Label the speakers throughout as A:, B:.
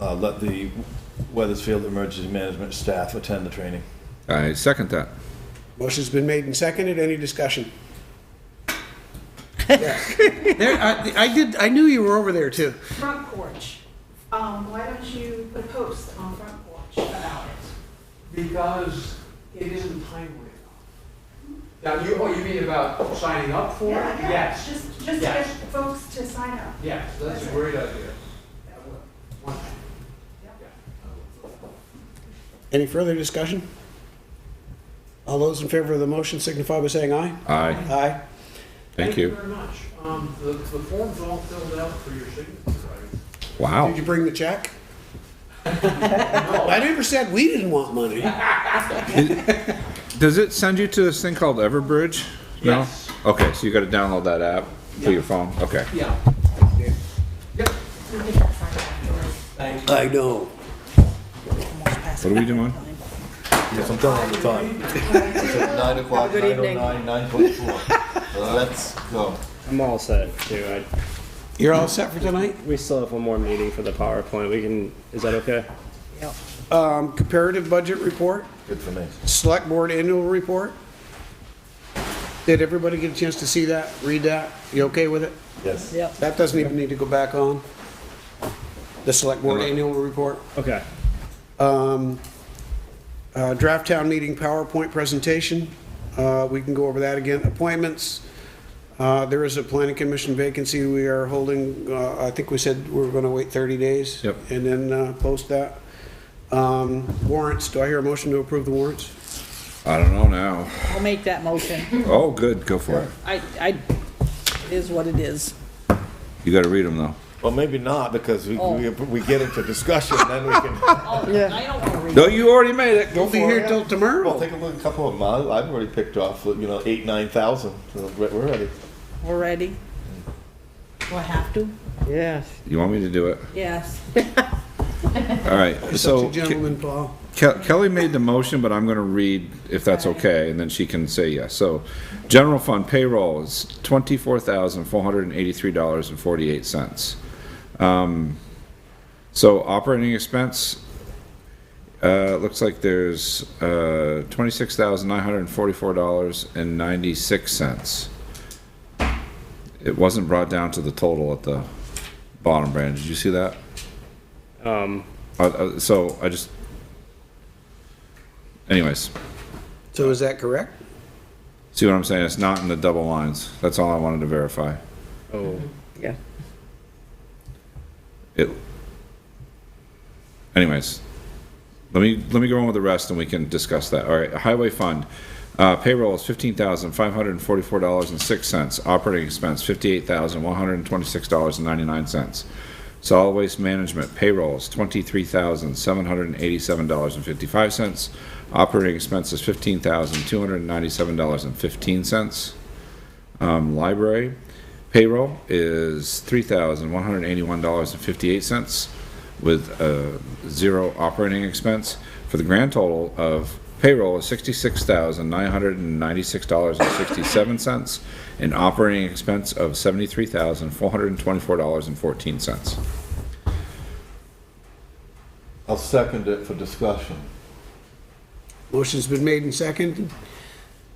A: uh, let the Weathersfield Emergency Management staff attend the training.
B: I second that.
C: Motion's been made and seconded. Any discussion?
D: There, I, I did, I knew you were over there too.
E: Front porch, um, why don't you put a post on front porch about it?
F: Because it isn't timely enough. Now, you, oh, you mean about signing up for it?
E: Yeah, yeah,
F: Yes,
E: Just, just to get
F: Yes.
E: folks to sign up.
F: yes, that's a great idea. One thing.
C: Any further discussion? All those in favor of the motion signify by saying aye.
B: Aye.
C: Aye.
B: Thank you.
F: very much. Um, the, the form's all filled out for your signature, right?
B: Wow.
C: Did you bring the check?
F: No.
C: I never said we didn't want money.
B: Does it send you to this thing called Everbridge? No?
F: Yes.
B: Okay, so you gotta download that app to your phone. Okay.
F: Yeah. Yep. Thank you.
C: I know.
B: What are we doing?
A: Yes, I'm telling you the time.
G: It's at nine o'clock,
H: Have a
G: nine
H: good
G: oh nine, nine forty-four. Let's go.
I: I'm all set too. I,
C: You're all set for tonight?
I: we still have one more meeting for the PowerPoint. We can, is that okay?
C: Um, comparative budget report,
A: Good for me.
C: select board annual report. Did everybody get a chance to see that, read that? You okay with it?
A: Yes.
H: Yep.
C: That doesn't even need to go back on. The select board annual report.
I: Okay.
C: Um, uh, Draft town meeting PowerPoint presentation, Uh, we can go over that again. Appointments, uh, there is a planning commission vacancy we are holding, uh, I think we said we were going to wait 30 days.
B: Yep.
C: And then uh, post that. Um, Warrants, do I hear a motion to approve the warrants?
B: I don't know now.
H: I'll make that motion.
B: Oh, good, go for it.
H: I, I, it is what it is.
B: You gotta read them though.
A: Well, maybe not, because we, we
H: Oh.
A: we get into discussion, then we can,
H: I don't wanna read.
B: No, you already made it. Go
C: We'll be
B: for it.
C: here till
A: well,
C: tomorrow.
A: take a look, a couple of them, I- I've already picked off, you know, eight, nine thousand, so we're we're ready.
H: We're ready. Do I have to?
J: Yes.
B: You want me to do it?
H: Yes.
B: All right, so Ke-
C: Gentlemen, Paul.
B: Ke- Kelly made the motion, but I'm gonna read if that's okay, and then she can say yes. So, general fund payroll is twenty-four thousand, four hundred and eighty-three dollars and forty-eight cents. Um, So operating expense, uh, looks like there's, uh, twenty-six thousand nine hundred and forty-four dollars and ninety-six cents. It wasn't brought down to the total at the bottom, Brandon. Did you see that?
I: Um,
B: Uh, uh, so I just, anyways,
C: So is that correct?
B: see what I'm saying? It's not in the double lines. That's all I wanted to verify.
I: oh,
J: Yeah.
B: It, anyways, let me, let me go on with the rest and we can discuss that. All right, highway fund, uh, payroll is fifteen thousand five hundred and forty-four dollars and six cents. Operating expense, fifty-eight thousand one hundred and twenty-six dollars and ninety-nine cents. Solid waste management payroll is twenty-three thousand seven hundred and eighty-seven dollars and fifty-five cents. Operating expenses, fifteen thousand two hundred and ninety-seven dollars and fifteen cents. Um, library payroll is three thousand one hundred eighty-one dollars and fifty-eight cents with uh zero operating expense for the grand total of payroll is sixty-six thousand nine hundred and ninety-six dollars and sixty-seven cents and operating expense of seventy-three thousand four hundred and twenty-four dollars and fourteen cents.
A: I'll second it for discussion.
C: Motion's been made and seconded,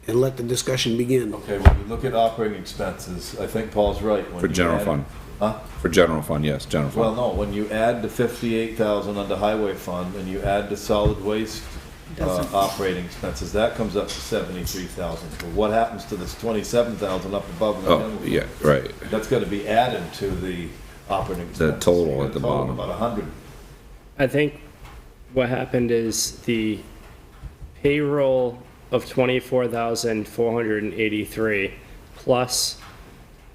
C: and let the discussion begin.
A: Okay, when you look at operating expenses, I think Paul's right. when
B: For
A: you
B: general
A: add-
B: fund.
A: Huh?
B: For general fund, yes, general
A: Well,
B: fund.
A: no, when you add the fifty-eight thousand under highway fund and you add the solid waste uh,
H: Doesn't.
A: operating expenses, that comes up to seventy-three thousand. But what happens to this twenty-seven thousand up above? in the
B: Oh,
A: general?
B: yeah, right.
A: That's gotta be added to the operating expenses.
B: total
A: You got
B: at
A: a
B: the
A: total of
B: bottom.
A: About a hundred.
I: I think what happened is the payroll of twenty-four thousand four hundred and eighty-three plus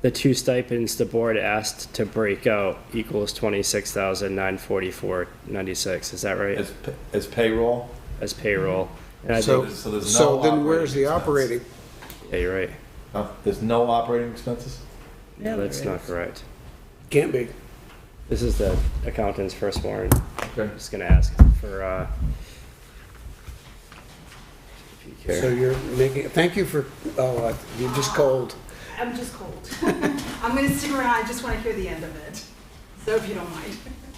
I: the two stipends the board asked to break out equals twenty-six thousand nine forty-four ninety-six. Is that right?
A: As, pa- as payroll?
I: As payroll. And I
C: So-
I: think,
A: there's- so there's
C: So
A: no
C: then where's the
A: operating
C: operating?
I: yeah, you're right.
A: Huh? There's no operating expenses?
H: Yeah,
I: That's
H: there
I: not correct.
C: Can't be.
I: This is the accountant's first warrant.
A: Okay.
I: I'm just gonna ask for, uh, if you care.
C: So you're making, thank you for, oh, I- you just called.
E: I'm just cold. I'm gonna stick around, I just wanna hear the end of it, so if you don't mind.